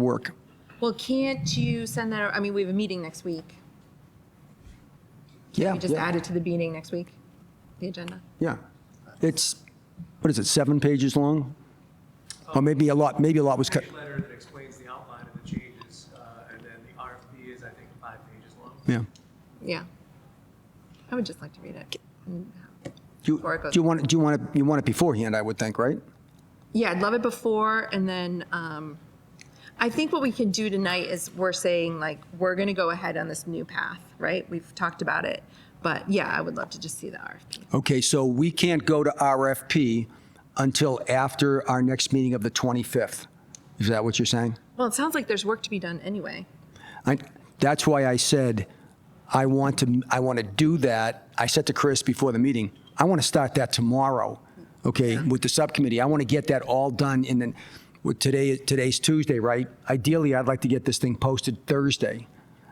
work. Well, can't you send that, I mean, we have a meeting next week. Yeah, We just yeah, add it to the meeting next week, the agenda. yeah. It's, what is it, seven pages long? Oh. Or maybe a lot, maybe a lot was cut. Page letter that explains the outline of the changes, uh, and then the RFP is, I think, five pages long. Yeah. Yeah. I would just like to read it. Mm. Do you, Before it do goes- you want, it- do you want, it- you want it beforehand, I would think, right? Yeah, I'd love it before, and then, um, I think what we can do tonight is we're saying, like, we're gonna go ahead on this new path, right? We've talked about it, but yeah, I would love to just see the RFP. Okay, so we can't go to RFP until after our next meeting of the 25th. Is that what you're saying? Well, it sounds like there's work to be done anyway. I, that's why I said, I want to, I want to do that. I said to Chris before the meeting, I want to start that tomorrow, okay, with the subcommittee. I want to get that all done and then, with today, today's Tuesday, right? Ideally, I'd like to get this thing posted Thursday.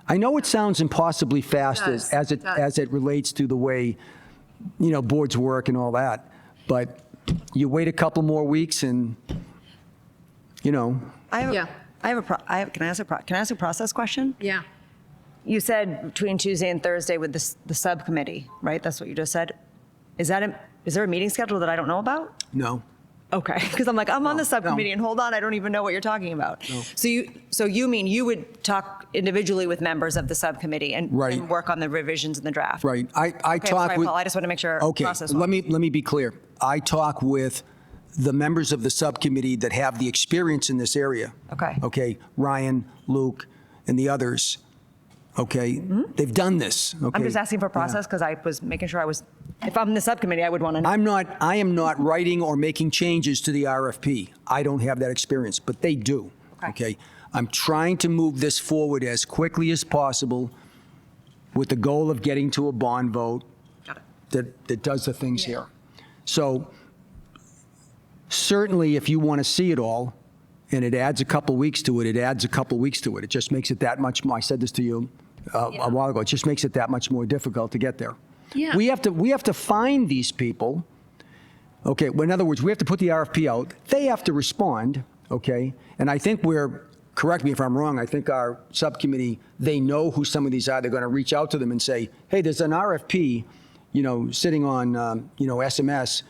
I know it sounds impossibly fast as, Does, as it, does. as it relates to the way, you know, boards work and all that, but you wait a couple more weeks and, you know, I have, Yeah. I have a, pro- I have, can I ask a, pro- can I ask a process question? Yeah. You said between Tuesday and Thursday with this, the subcommittee, right? That's what you just said. Is that, a, is there a meeting schedule that I don't know about? no. Okay, because I'm like, I'm on the subcommittee and hold on, I don't even know what you're talking about. So you, so you mean you would talk individually with members of the subcommittee and, Right. and work on the revisions in the draft? Right. I, I Okay, talk sorry, with. Paul, I just wanna make sure Okay, process let wise. me, let me be clear. I talk with the members of the subcommittee that have the experience in this area. Okay. Okay, Ryan, Luke, and the others. Okay, they've done this. Mm-hmm. I'm okay? just asking for Yeah. process because I was making sure I was, if I'm the subcommittee, I would want to know. I'm not, I am not writing or making changes to the RFP. I don't have that experience, but they do. Okay. I'm trying to move this forward as quickly as possible with the goal of getting to a bond vote that, that does the things here. So certainly, if you want to see it all, and it adds a couple weeks to it, it adds a couple weeks to it. It just makes it that much more, I said this to you uh, a while ago, it just makes it that much more difficult to get there. Yeah. We have to, we have to find these people. Okay, well, in other words, we have to put the RFP out. They have to respond, okay? And I think we're, correct me if I'm wrong, I think our subcommittee, they know who some of these are. They're going to reach out to them and say, hey, there's an RFP, you know, sitting on, um, you know, SMS.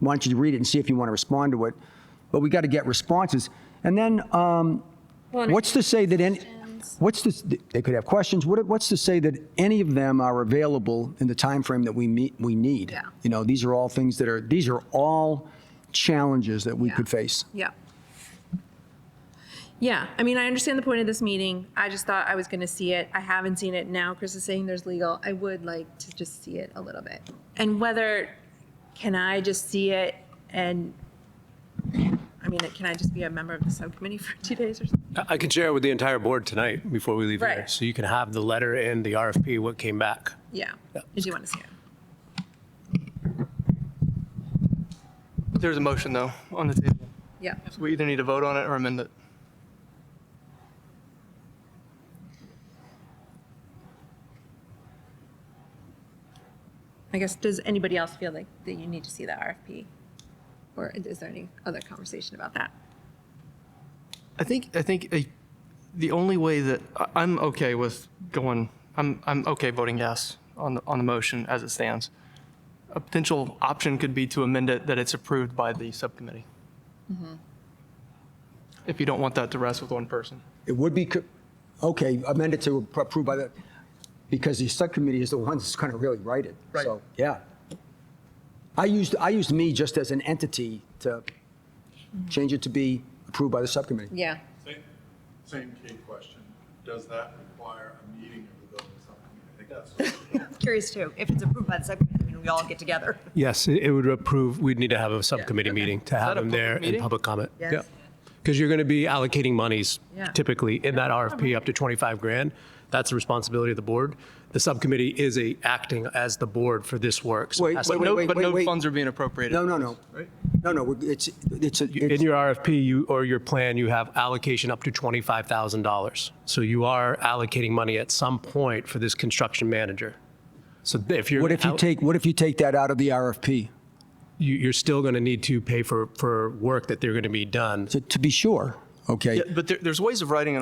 Why don't you read it and see if you want to respond to it? But we got to get responses. And then, um, what's to say that any, what's to, they could have questions. What, what's to say that any of them are available in the timeframe that we meet, we need? Yeah. You know, these are all things that are, these are all challenges that we Yeah. could face. Yeah. Yeah, I mean, I understand the point of this meeting. I just thought I was gonna see it. I haven't seen it. Now Chris is saying there's legal. I would like to just see it a little bit. And whether, can I just see it and, I mean, can I just be a member of the subcommittee for two days or something? I can share it with the entire board tonight before we leave here. Right. So you can have the letter and the RFP, what came back. Yeah, I do wanna see it. There's a motion, though, on the table. Yeah, So we either need to vote on it or amend it. I guess, does anybody else feel like that you need to see the RFP? Or is there any other conversation about that? I think, I think uh, the only way that, I- I'm okay with going, I'm, I'm okay voting yes on, the on the motion as it stands. A potential option could be to amend it that it's approved by the subcommittee. Mm-hmm. If you don't want that to rest with one person. It would be, co- okay, amend it to approve by the, because the subcommittee is the one that's going to really write it. Right. So, yeah. I used, I used me just as an entity to change it to be approved by the subcommittee. Yeah. Same, same key question. Does that require a meeting of the building subcommittee? I think that's. Curious too, if it's approved by the subcommittee, I mean, we all get together. Yes, it it would approve, we'd need to have a subcommittee meeting to have that a them there public in meeting? public comment. Yes. Because you're going to be allocating monies Yeah. typically in that RFP up to 25 grand. That's the responsibility of the board. The subcommittee is a, acting as the board for this work. So it Wait, has wait, to- But wait, no, wait, but wait, no wait. funds are being appropriated. No, no, no. Right? No, no, we're- it's, it's, a- In it's, your RFP, you, or your plan, you have allocation up to $25,000. So you are allocating money at some point for this construction manager. So if you're. what if you out- take, what if you take that out of the RFP? you, you're still going to need to pay for, for work that they're going to be done. To, to be sure, okay? Yeah, But there, there's ways of writing